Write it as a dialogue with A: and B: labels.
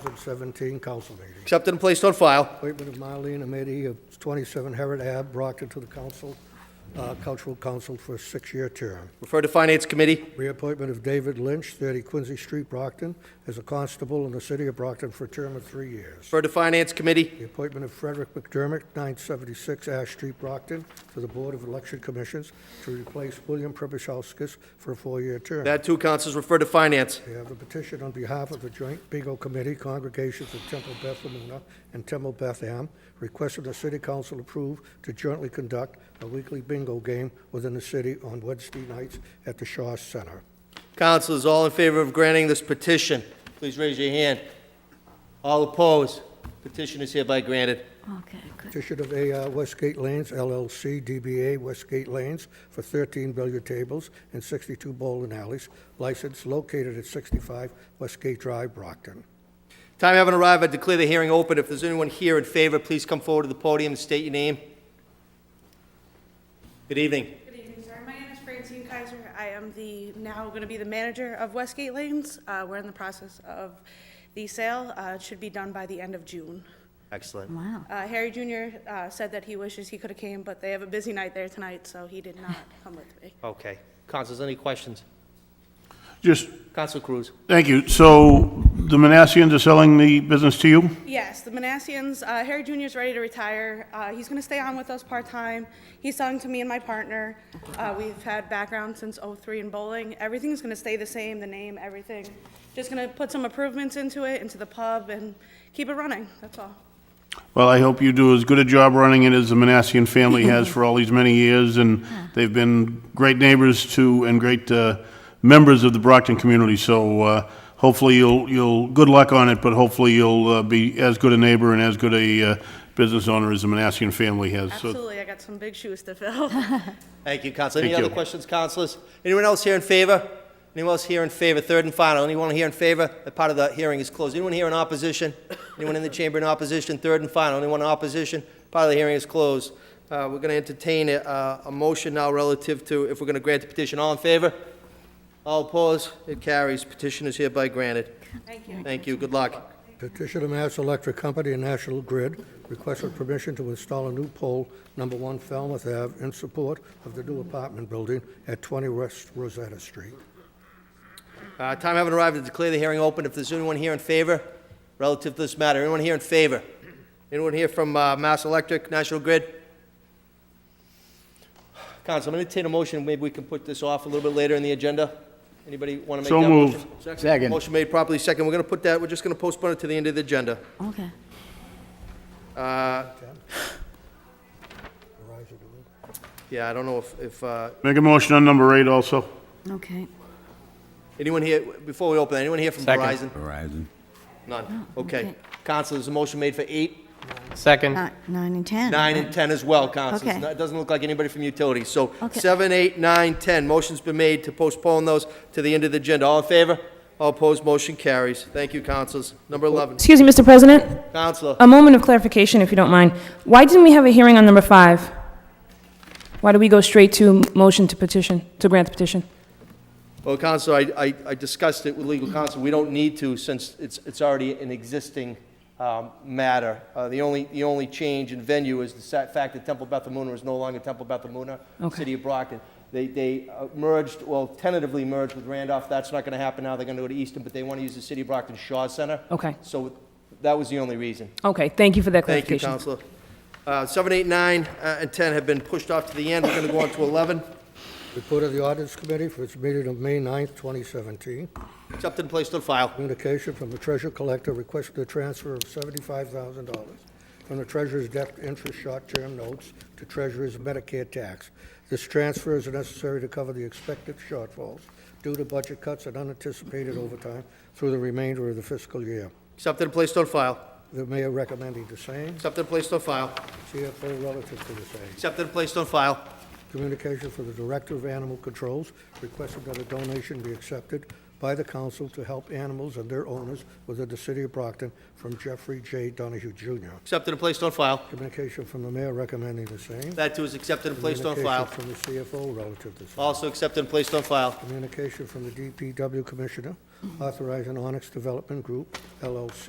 A: 2017 council meeting.
B: accepted and placed on file.
A: Appointment of Marlene Amity of 27 Herod Ave, Brockton, to the council, uh, cultural council for a six-year term.
B: Refer to Finance Committee.
A: Reappointment of David Lynch, 30 Quincy Street, Brockton, as a constable in the city of Brockton for a term of three years.
B: Refer to Finance Committee.
A: The appointment of Frederick McDermott, 976 Ash Street, Brockton, to the Board of Election Commissions to replace William Prebyszowskis for a four-year term.
B: That too, Councilors, refer to Finance.
A: We have a petition on behalf of the Joint Bingo Committee, Congregations of Temple Beth Lamuna and Temple Beth Am, requesting the City Council approve to jointly conduct a weekly bingo game within the city on Wednesday nights at the Shaw Center.
B: Councilors, all in favor of granting this petition, please raise your hand. All opposed? Petition is hereby granted.
C: Okay, good.
A: Petition of AR Westgate Lanes LLC, DBA Westgate Lanes, for 13 billiard tables and 62 bowling alleys, license located at 65 Westgate Drive, Brockton.
B: Time having arrived, I declare the hearing open. If there's anyone here in favor, please come forward to the podium and state your name. Good evening.
D: Good evening, sir. My name is Francine Kaiser. I am the, now going to be the manager of Westgate Lanes. Uh, We're in the process of the sale. Uh, It should be done by the end of June.
B: Excellent.
C: Wow.
D: Uh, Harry Jr. uh, said that he wishes he could have came, but they have a busy night there tonight, so he did not come with me.
B: Okay. Councilors, any questions?
E: Just,
B: Council Cruz.
E: thank you. So the Manassians are selling the business to you?
D: Yes, the Manassians, uh, Harry Jr. is ready to retire. Uh, He's going to stay on with us part-time. He's selling to me and my partner. Uh, We've had background since '03 in bowling. Everything's going to stay the same, the name, everything. Just going to put some improvements into it, into the pub, and keep it running, that's all.
E: Well, I hope you do as good a job running it as the Manassian family has for all these many years, and they've been great neighbors to, and great uh, members of the Brockton community, so uh, hopefully you'll, you'll, good luck on it, but hopefully you'll uh, be as good a neighbor and as good a uh, business owner as the Manassian family has. So
D: Absolutely, I got some big shoes to fill.
B: Thank you, Council. Any
E: Thank
B: other
E: you.
B: questions, Councilors? Anyone else here in favor? Anyone else here in favor? Third and final. Anyone here in favor? That part of the hearing is closed. Anyone here in opposition? Anyone in the chamber in opposition? Third and final. Anyone in opposition? Part of the hearing is closed. Uh, We're going to entertain a- a a motion now relative to if we're going to grant the petition. All in favor? All opposed? It carries. Petition is hereby granted.
D: Thank you.
B: Thank you. Good luck.
A: Petition of Mass Electric Company and National Grid requesting permission to install a new pole, number one Falmouth Ave, in support of the new apartment building at 20 West Rosetta Street.
B: Uh, Time having arrived to declare the hearing open. If there's anyone here in favor relative to this matter, anyone here in favor? Anyone here from uh, Mass Electric, National Grid? Council, I'm going to entertain a motion, maybe we can put this off a little bit later in the agenda. Anybody want to
E: So
B: make that motion?
E: moved.
B: Second. Motion made properly, second. We're going to put that, we're just going to postpone it to the end of the agenda.
C: Okay.
B: Yeah, I don't know if, if, uh,
E: make a motion on number eight also.
C: Okay.
B: anyone here, before we open, anyone here from Verizon?
F: Horizon.
B: None. Okay.
C: okay.
B: Council, there's a motion made for eight.
G: Second,
C: Nine, nine and 10.
B: Nine and 10 as well, Constance.
C: Okay.
B: No, It doesn't look like anybody from utilities. So
C: Okay.
B: seven, eight, nine, 10. Motion's been made to postpone those to the end of the agenda. All in favor? All opposed? Motion carries. Thank you, Councilors. Number 11,
H: Excuse me, Mr. President,
B: Counselor.
H: a moment of clarification, if you don't mind. Why didn't we have a hearing on number five? Why do we go straight to motion to petition, to grant the petition?
B: Well, Counselor, I- I I discussed it with legal counsel. We don't need to since it's it's already an existing um, matter. Uh, The only the only change in venue is the sa- fact that Temple Beth Amuna is no longer Temple Beth Amuna,
H: Okay.
B: City of Brockton. They they uh, merged, well, tentatively merged with Randolph. That's not going to happen now. They're going to go to Easton, but they want to use the City of Brockton Shaw Center.
H: Okay.
B: So that was the only reason.
H: Okay, thank you for that
B: Thank you,
H: clarification.
B: Counselor. Uh, Seven, eight, nine, uh, and 10 have been pushed off to the end. We're going to go on to 11.
A: Report of the Audits Committee for its meeting of May 9th, 2017.
B: Accepted and placed on file.
A: Communication from the Treasurer Collector requesting the transfer of $75,000 from the Treasurer's debt interest short-term notes to Treasurer's Medicare tax. This transfer is necessary to cover the expected shortfalls due to budget cuts and unanticipated overtime through the remainder of the fiscal year.
B: Accepted and placed on file.
A: The Mayor recommending the same.
B: Accepted and placed on file.
A: CFO relative to the same.
B: Accepted and placed on file.
A: Communication for the Director of Animal Controls requested that a donation be accepted by the council to help animals and their owners within the city of Brockton from Jeffrey J. Donahue Jr.
B: Accepted and placed on file.
A: Communication from the mayor recommending the same.
B: That too is accepted and placed on file.
A: Communication from the CFO relative to the same.
B: Also accepted and placed on file.
A: Communication from the DPW Commissioner authorizing Onyx Development Group LLC